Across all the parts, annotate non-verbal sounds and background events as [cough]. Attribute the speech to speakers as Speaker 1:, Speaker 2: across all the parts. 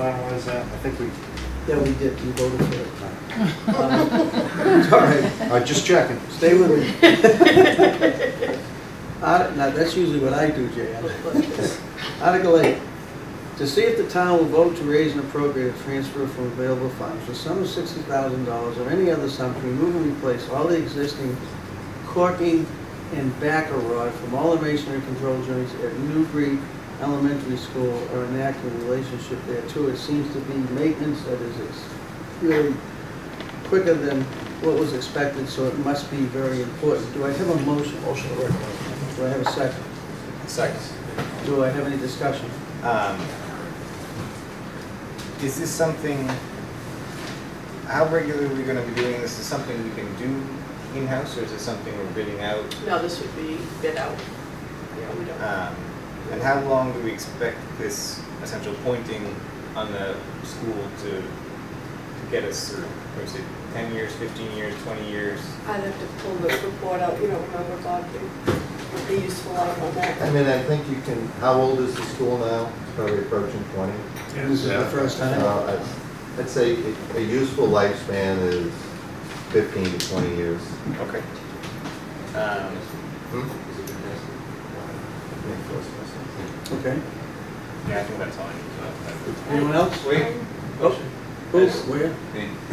Speaker 1: finalize that? I think we,
Speaker 2: Yeah, we did, we voted for it.
Speaker 1: [laughs]
Speaker 2: Um,
Speaker 1: all right, [laughs] all right, just checking.
Speaker 2: Stay with me. Art- Now, that's usually what I do, Jay. Article eight, to see if the town will vote to raise and appropriate a transfer from available funds the sum of sixty thousand dollars or any other sum to remove and replace all the existing corking and backer rod from all the masonry control joints at Newbury Elementary School or enact a relationship there too. It seems to be maintenance that is ex- really quicker than what was expected, so it must be very important. Do I have a motion?
Speaker 3: Motion to recommend.
Speaker 2: Do I have a second?
Speaker 3: Second.
Speaker 2: Do I have any discussion?
Speaker 3: Um, Is this something, how regularly are we gonna be doing this? Is something we can do in-house, or is it something we're bidding out?
Speaker 4: No, this would be bid out. Yeah, we don't.
Speaker 3: Um, And how long do we expect this essential pointing on the school to to get us through? Or is it ten years, fifteen years, twenty years?
Speaker 4: I'd have to pull the report out, you know, remember Bob, it would be useful out on
Speaker 5: I
Speaker 4: that.
Speaker 5: mean, I think you can, how old is the school now? It's Probably approaching 20.
Speaker 2: This is the first time.
Speaker 5: Uh, I'd- I'd say a- a useful lifespan is 15 to 20 years.
Speaker 3: Okay. Um,
Speaker 2: Okay.
Speaker 3: Yeah, I think that's all I need to know.
Speaker 2: Anyone else?
Speaker 6: Wait,
Speaker 2: Oh, who, where?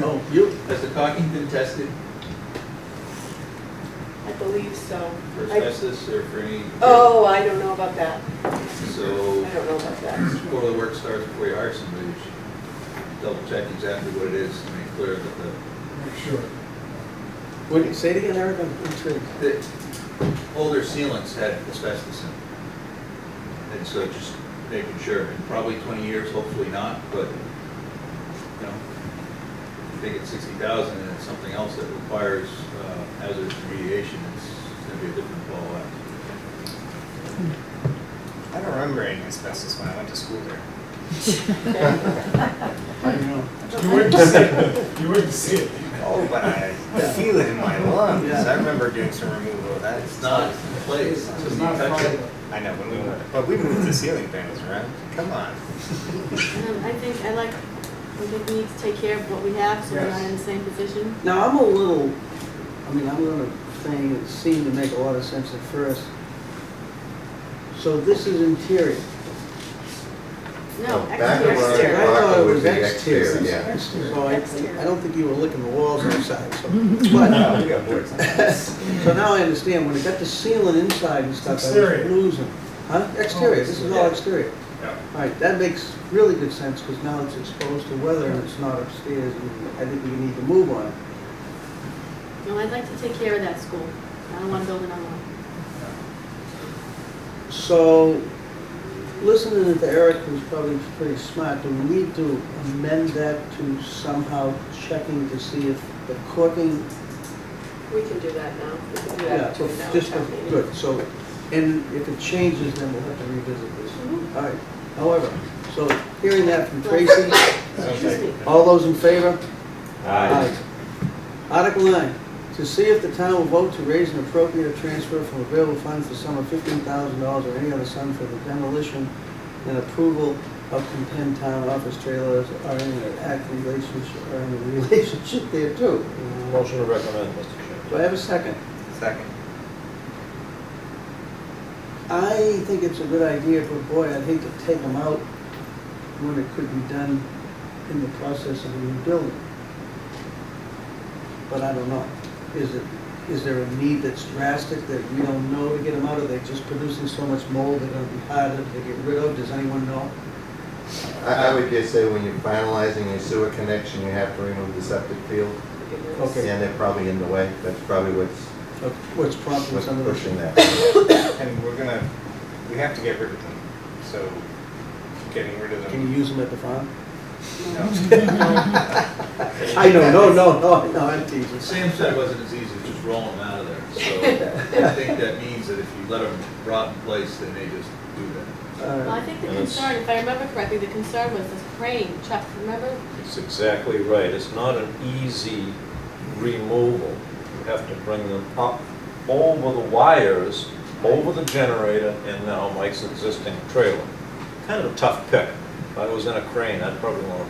Speaker 2: Oh, you?
Speaker 6: has the caulking been tested
Speaker 4: I believe so.
Speaker 6: for
Speaker 4: I-
Speaker 6: asbestos or for any?
Speaker 4: Oh, I don't know about that. I
Speaker 6: So
Speaker 4: don't know about that.
Speaker 6: before the work starts, before you hire somebody, you should double check exactly what it is to make clear that the,
Speaker 2: What, say it again, Eric, I'm intrigued.
Speaker 6: the older sealants had asbestos in them. And so just making sure, in probably twenty years, hopefully not, but, you know, if they get sixty thousand and it's something else that requires uh, hazardous remediation, it's it's gonna be a different ball after.
Speaker 3: I don't remember any asbestos when I went to school there.
Speaker 7: Um,
Speaker 2: I don't know.
Speaker 3: You wouldn't see it. You wouldn't see it. Oh, but I feel it in my lungs.
Speaker 2: Yeah.
Speaker 3: I remember doing some removal of that.
Speaker 6: It's not in place, it's
Speaker 1: It's
Speaker 6: gonna
Speaker 1: not
Speaker 6: be touching.
Speaker 1: private.
Speaker 3: I know, when we, but we moved the ceiling fans around. Come on.
Speaker 7: Um, I think, I like, I think we need to take care of what we have, so we're not in the same position.
Speaker 2: Now, I'm a little, I mean, I'm gonna thing that seemed to make a lot of sense at first. So this is interior.
Speaker 7: No,
Speaker 5: Back of
Speaker 7: exterior.
Speaker 5: our
Speaker 2: Exterior. I
Speaker 7: exterior.
Speaker 2: thought it
Speaker 5: block would
Speaker 2: was
Speaker 5: be
Speaker 2: exterior.
Speaker 5: exterior, yeah.
Speaker 2: So I,
Speaker 7: Exterior.
Speaker 2: I don't think you were licking the walls outside,
Speaker 5: [laughs]
Speaker 2: so. But,
Speaker 3: we got
Speaker 2: [laughs]
Speaker 3: boards.
Speaker 2: So now I understand, when it got the ceiling inside and stuff, I was losing. Huh? Exterior, this is all exterior. All right, that makes really good sense, because now it's exposed to weather and it's not upstairs, and I think we need to move on it.
Speaker 7: No, I'd like to take care of that school. I don't want to build another one.
Speaker 2: So, listening to Eric, who's probably pretty smart, do we need to amend that to somehow checking to see if the corking
Speaker 4: We can do that now. We can do
Speaker 2: Yeah,
Speaker 4: that between now and
Speaker 2: just,
Speaker 4: town meeting.
Speaker 2: good, so, and if it changes, then we'll have to revisit this.
Speaker 7: Mm-hmm.
Speaker 4: Mhm.
Speaker 2: All right, however, so hearing that from Tracy,
Speaker 7: Excuse me.
Speaker 2: all those in favor? Article nine, to see if the town will vote to raise an appropriate transfer from available funds for sum of fifteen thousand dollars or any other sum for the demolition and approval of contend town office trailers or any act relationship, or any relationship there too.
Speaker 5: Motion to recommend, Mr. Chairman.
Speaker 2: Do I have a second?
Speaker 3: Second.
Speaker 2: I think it's a good idea, but boy, I'd hate to take them out when it could be done in the process of a new building. But I don't know. Is it, is there a need that's drastic that we don't know to get them out? Are they just producing so much mold they're gonna be harder to get rid of? Does anyone know?
Speaker 5: I I would just say when you're finalizing your sewer connection, you have to remove the septic field,
Speaker 4: We can do this.
Speaker 2: Okay.
Speaker 5: and they're probably in the way. That's probably what's
Speaker 2: of What's prompting
Speaker 5: what's
Speaker 2: some of this?
Speaker 5: pushing that.
Speaker 3: And we're gonna, we have to get rid of them. So getting rid of them.
Speaker 2: Can you use them at the farm?
Speaker 3: No. [laughs]
Speaker 2: I know, no, no, no, no, I'm teasing.
Speaker 6: But Sam said it wasn't as easy as just rolling them out of there, so I think that means that if you let them rot in place, they may just do that.
Speaker 7: Well, I
Speaker 2: Uh,
Speaker 7: think the concern, if I remember correctly, the concern was this crane. Chuck, remember?
Speaker 8: It's exactly right. It's not an easy removal. You have to bring them up over the wires, over the generator, and now Mike's existing trailer. Kind of a tough pick,
Speaker 6: If I was in a crane, I'd probably want to